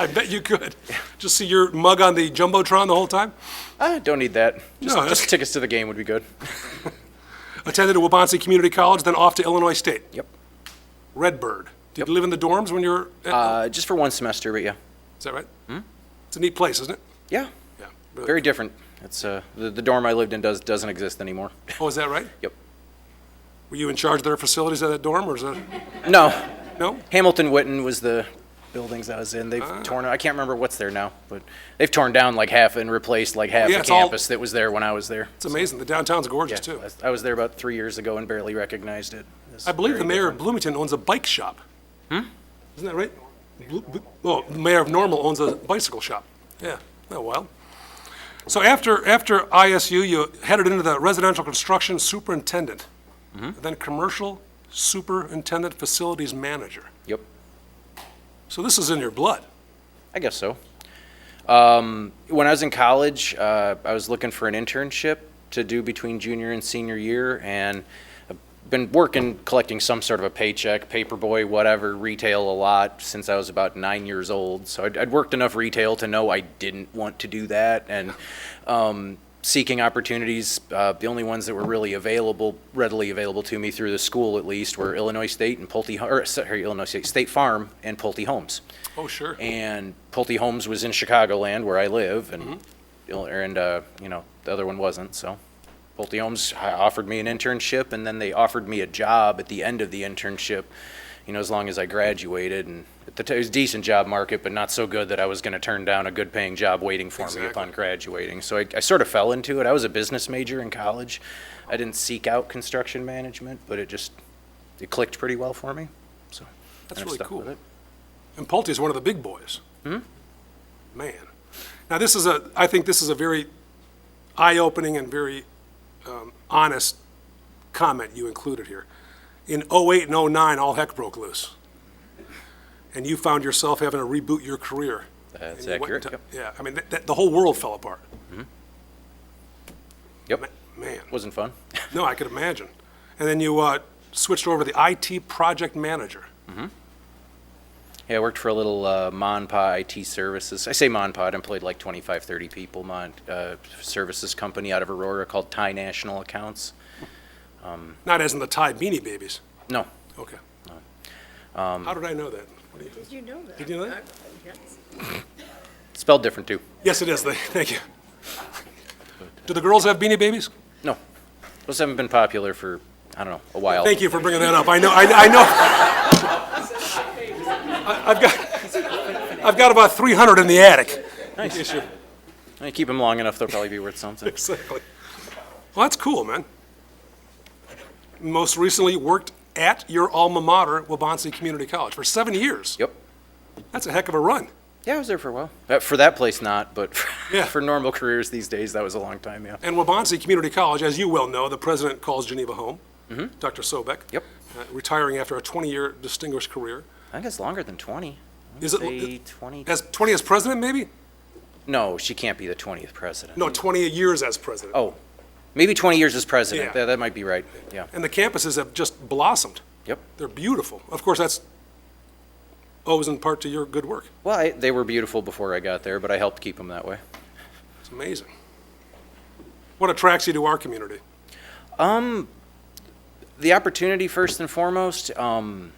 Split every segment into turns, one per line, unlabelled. I bet you could. Just see your mug on the jumbotron the whole time.
Ah, don't need that. Just,
No, that's-
just tickets to the game would be good.
Attended a Wabansie Community College, then off to Illinois State.
Yep.
Redbird. Did you live in the dorms when you were? At,
Uh, just for one semester, but yeah.
is that right? It's a neat place, isn't it?
Yeah.
Yeah.
Very different. It's uh, the, the dorm I lived in does doesn't exist anymore.
Oh, is that right?
Yep.
Were you in charge of their facilities at that dorm, or is that?
No.
No.
Hamilton Witten was the buildings I was in. They've
Ah.
torn. I can't remember what's there now, but they've torn down like half and replaced like half
Yeah,
the
it's all-
campus that was there when I was there.
It's amazing. The downtown's gorgeous
Yeah,
too.
I I was there about three years ago and barely recognized it. It's
I believe
very
the mayor of Bloomington owns a bike shop.
Hmm?
Isn't that right? Blu- Blu- Oh, the mayor of Normal owns a bicycle shop. Yeah, oh, well. So after, after ISU, you headed into the residential construction superintendent,
Mm-hmm.
then commercial superintendent facilities manager.
different. Yep.
So this is in your blood.
I guess so. Um, when I was in college, uh, I was looking for an internship to do between junior and senior year, and I've been working, collecting some sort of a paycheck, paperboy, whatever, retail a lot since I was about nine years old. So I'd, I'd worked enough retail to know I didn't want to do that, and um, seeking opportunities, uh, the only ones that were really available, readily available to me through the school at least, were Illinois State and Pulte, or sorry, Illinois State, State Farm and Pulte Homes
Oh, sure.
and Pulte Homes was in Chicagoland, where I live, and
Mm-hmm.
ill- and uh, you know the other one wasn't. So Pulte Homes hi- offered me an internship, and then they offered me a job at the end of the internship. You know, as long as I graduated, and at the t- it was a decent job market, but not so good that I was going to turn down a good-paying job waiting for me
Exactly.
upon graduating. So I, I sort of fell into it. I was a business major in college. I didn't seek out construction management, but it just it clicked pretty well for me. So
That's
and I've
really
stuck
cool.
with it.
And Pulte is one of the big boys. Hmm? Man. Now, this is a, I think this is a very eye-opening and very um, honest comment you included here. In '08 and '09, all heck broke loose. And you found yourself having to reboot your career.
That's
And you went
accurate,
into-
yep.
Yeah, I mean, that- that- the whole world fell apart.
Yep,
Man,
wasn't fun.
no, I could imagine. And then you uh, switched over to the IT project manager.
Yeah, I worked for a little uh, Monpa IT services. I say Monpa, it employed like 25, 30 people. Mon uh, services company out of Aurora called Thai National Accounts.
Not as in the Thai Beanie Babies.
No,
Okay. How did I know that? What do you-
Did you know that?
Did you know that?
Yes.
spelled different too.
Yes, it is. They- Thank you. Do the girls have beanie babies?
No, those haven't been popular for I don't know a while.
Thank you for bringing that up. I know, I I know. I- I've got, I've got about 300 in the attic. Nice.
I keep them long enough; they'll probably be worth something.
Exactly. Well, that's cool, man. Most recently, you worked at your alma mater, Wabansie Community College, for seven years.
Yep.
That's a heck of a run.
Yeah, I was there for a while. Uh, for that place, not, but for,
Yeah.
for normal careers these days, that was a long time. Yeah.
And Wabansie Community College, as you well know, the president calls Geneva home, Dr. Sobek.
Mm-hmm. Yep.
uh, Retiring after a 20-year distinguished career.
I think it's longer than 20. I
Is
would
it-
say 20?
As 20 as president, maybe?
No, she can't be the 20th president.
No, 20 years as president.
Oh, maybe 20 years as president.
Yeah.
That, that might be right. Yeah.
And the campuses have just blossomed.
Yep.
They're beautiful. Of course, that's owes in part to your good work.
Well, I, they were beautiful before I got there, but I helped keep them that way.
It's amazing. What attracts you to our community?
The opportunity, first and foremost, um,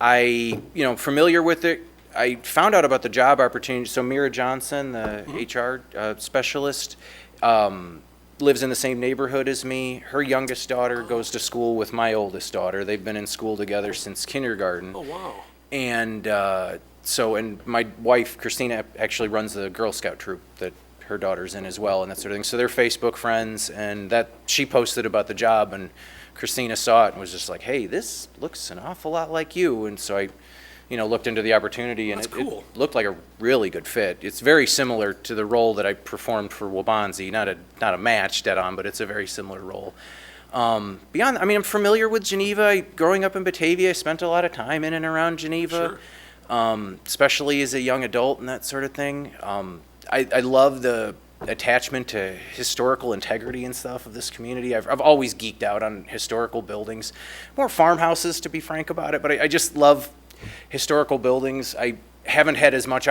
I, you know, familiar with it. I found out about the job opportunity. So Mira Johnson, the HR uh, specialist, um, lives in the same neighborhood as me. Her youngest daughter goes to school with my oldest daughter. They've been in school together since kindergarten.
Oh, wow.
And uh, so, and my wife, Christina, actually runs the Girl Scout troop that her daughter's in as well, and that sort of thing. So they're Facebook friends, and that she posted about the job, and Christina saw it and was just like, hey, this looks an awful lot like you. And so I, you know, looked into the opportunity, and
That's
it, it
cool.
looked like a really good fit. It's very similar to the role that I performed for Wabanzi, not a, not a match dead on, but it's a very similar role. Um, beyond, I mean, I'm familiar with Geneva. I, growing up in Batavia, I spent a lot of time in and around Geneva, um, especially as a young adult and that sort of thing. Um, I, I love the attachment to historical integrity and stuff of this community. I've, I've always geeked out on historical buildings, more farmhouses to be frank about it, but I, I just love historical buildings. I haven't had as much